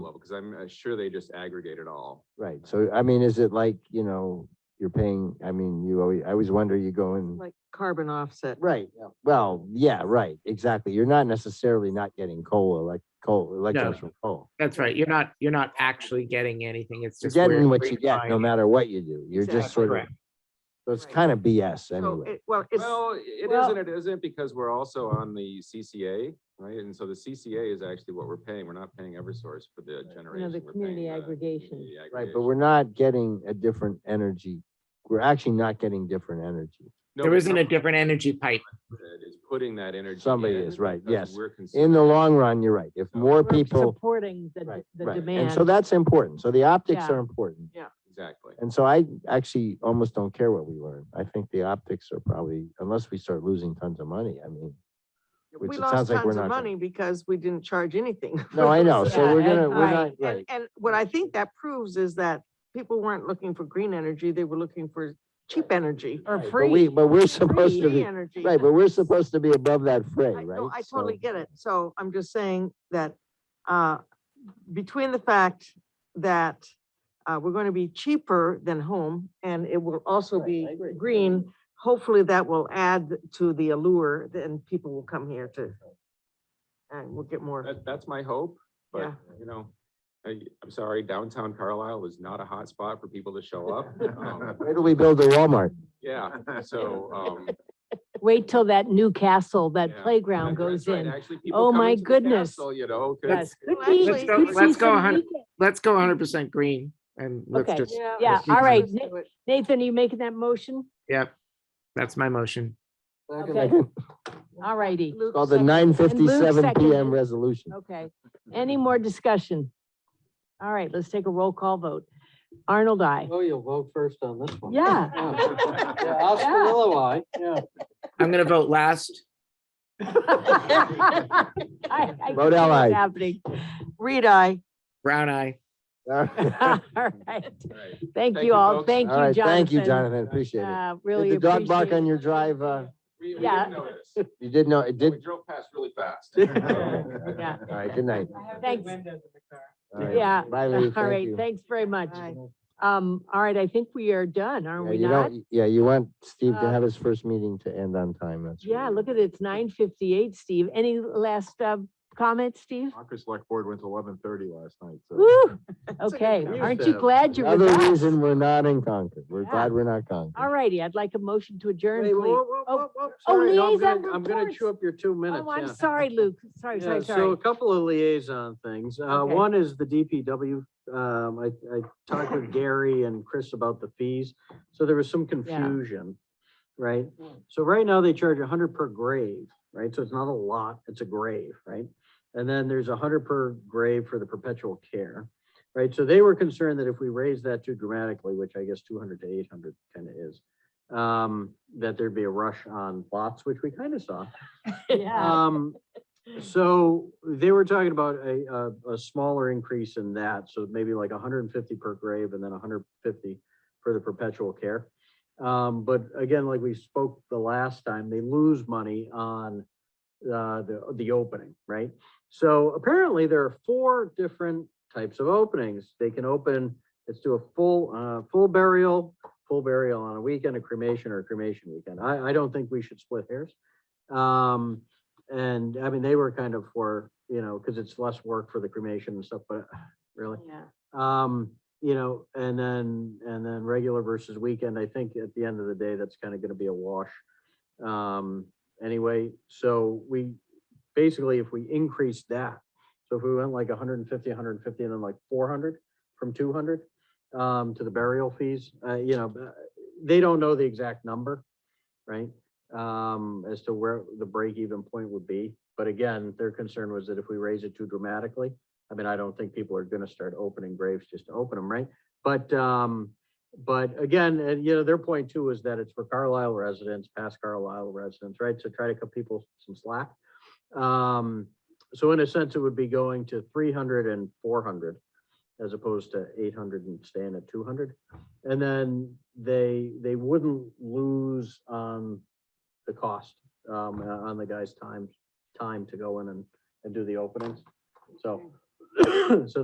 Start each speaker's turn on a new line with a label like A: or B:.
A: because I'm uh, sure they just aggregate it all.
B: Right, so I mean, is it like, you know, you're paying, I mean, you always, I always wonder, you go in,
C: like carbon offset.
B: right, well, yeah, right, exactly. You're not necessarily not getting coal, like coal, electrons from coal.
D: That's right. You're not, you're not actually getting anything. It's
B: You're
D: just. where-
B: getting
D: where
B: what you get, no
D: buying it.
B: matter what you do. You're just
C: Exactly.
B: sort of,
D: Correct.
B: so it's
C: Right.
B: kind of BS
C: So
B: anyway.
C: it- Well, it's,
A: Well, it
C: well-
A: isn't, it isn't, because we're also on the CCA, right? And so the CCA is actually what we're paying. We're not paying Eversource for the generation. we're paying uh,
E: community
A: the
E: aggregation.
A: community
B: Right, but
A: aggregation.
B: we're not getting a different energy. We're actually not getting different energy.
A: No,
D: There
A: but
D: isn't a
A: someone
D: different energy pipe.
A: that Is putting that energy.
B: Somebody
A: in
B: is, right,
A: because
B: yes.
A: we're
B: In the
A: consuming-
B: long run, you're right. If
A: So-
B: more
E: We're
B: people,
E: Supporting the,
B: right,
E: d- the
B: right.
E: demand.
B: And so that's important. So the optics
E: Yeah.
B: are important.
A: Exactly.
B: And so I actually almost don't care what we learn. I think the optics are probably, unless we start losing tons of money, I mean, which
C: we
B: it
C: lost
B: sounds like we're
C: tons of
B: not gonna-
C: money because we didn't charge anything.
B: no, I know.
E: Yeah,
B: So we're gonna,
E: and-
B: we're not, right.
C: And, and what I think that proves is that people weren't looking for green energy, they were looking for cheap energy.
E: Or
B: But we,
E: free.
B: but we're supposed to
C: Free
B: be,
C: energy.
B: right, but we're supposed to be above that fray,
C: I-
B: right?
C: no, I
B: So-
C: totally get it. So I'm just saying that, uh, between the fact that, uh, we're going to be cheaper than home and it will also
B: Right,
C: be
B: I agree.
C: green, hopefully that will add to the allure, then people will come here to, and we'll get more.
A: That, that's my hope, but,
C: Yeah.
A: you know, I, I'm sorry, downtown Carlisle is not a hot spot for people to show up. Um,
B: Where do we build a Walmart?
A: Yeah, so, um.
E: Wait till that new castle,
A: Yeah.
E: that playground goes
A: that's right. uh,
E: in.
A: Actually, people
E: Oh
A: come
E: my
A: into the
E: goodness.
A: castle, You know, 'cause-
E: Yes.
C: Well,
E: Could be-
C: actually-
E: could
D: Let's go-
E: see
D: let's go
E: some
D: 100
E: weekend-
D: Let's go hundred percent green and let's
E: Okay.
D: just,
E: Yeah,
D: let's keep
E: all right.
D: it.
E: Na- Nathan, are you making that motion?
D: yep. That's my motion.
E: Okay, all righty.
C: Luke
B: Called the
C: second.
B: nine fifty-seven
E: seconded.
B: PM resolution.
E: Okay. Any more discussion? All right, let's take a roll call vote. Arnold, I.
F: Oh, you'll vote first on this one.
E: Yeah.
F: Yeah, Oscarilla, aye. Yeah.
D: I'm gonna vote last.
E: I- I can see
B: Vote
E: what's
B: aye.
E: Happening.
C: Reed, I.
D: Brown eye.
B: All
E: All
B: right,
E: right.
A: Right.
E: Thank
A: Thank
E: you
A: you,
E: all.
A: folks.
E: Thank you,
B: All right,
E: Jonathan.
B: thank you, Jonathan. Appreciate it.
E: Uh,
B: Did
E: Really
B: the dog bark
E: appreciate it.
B: on your drive? Uh,
A: We, we
E: Yeah.
A: didn't notice.
B: you did know, it
A: We
B: did.
A: drove past really fast.
E: Yeah.
B: All right, good night.
E: Thanks.
B: All right.
E: Yeah.
B: Bye, Lee.
E: All
B: Thank
E: right,
B: you.
E: thanks very much.
C: Bye.
E: Um, all right, I think we are done, are
B: Yeah,
E: we
B: you
E: not?
B: don't- Yeah, you want Steve to
E: Uh,
B: have his first meeting to end on time. That's
E: Yeah,
B: really-
E: look at it, it's nine fifty-eight, Steve. Any last, uh, comments, Steve?
G: Concord Select Board went to eleven thirty last night, so.
E: Woo,
C: a good
E: okay,
C: point.
E: aren't you glad you're with
B: Another
E: us?
B: reason we're not in Concord. We're
E: Yeah.
B: glad we're not Concord.
E: All righty, I'd like a motion to adjourn,
F: Wait, whoa,
E: please.
F: whoa,
E: Oh,
F: whoa, whoa,
E: oh,
F: sorry, no, I'm
E: liaison
F: gonna- I'm gonna chew
E: reports.
F: up your two minutes,
E: Oh, I'm
F: yeah.
E: sorry, Luke, sorry,
F: Yeah,
E: sorry,
F: so
E: sorry.
F: a couple of liaison things. Uh,
E: Okay.
F: one is the DPW. Um, I, I talked with Gary and Chris about the fees. So there was some confusion, right? So right now they charge a hundred per grave, right? So it's not a lot, it's a grave, right? And then there's a hundred per grave for the perpetual care, right? So they were concerned that if we raise that too dramatically, which I guess two hundred to eight hundred kind of is, um, that there'd be a rush on lots, which we kind of saw.
E: Yeah,
F: Um, so they were talking about a, a, a smaller increase in that, so maybe like hundred and fifty per grave and then hundred fifty for the perpetual care. Um, but again, like we spoke the last time, they lose money on, uh, the, the opening, right? So apparently there are four different types of openings. They can open, let's do a full, uh, full burial, full burial on a weekend, a cremation or a cremation weekend. I, I don't think we should split hairs. Um, and I mean, they were kind of for, you know, because it's less work for the cremation and stuff, but really.
E: yeah.
F: Um, you know, and then, and then regular versus weekend, I think at the end of the day, that's kind of gonna be a wash. Um, anyway, so we, basically, if we increase that, so if we went like hundred and fifty, hundred and fifty, and then like four hundred from two hundred, um, to the burial fees, uh, you know, uh, they don't know the exact number, right? Um, as to where the break-even point would be, but again, their concern was that if we raise it too dramatically, I mean, I don't think people are gonna start opening graves just to open them, right? But, um, but again, and you know, their point too is that it's for Carlisle residents, past Carlisle residents, right? So try to cut people some slack. Um, so in a sense, it would be going to 300 and 400 as opposed to eight hundred and staying at two hundred. And then they, they wouldn't lose, um, the cost, um, uh, on the guy's time, time to go in and, and do the openings. So, so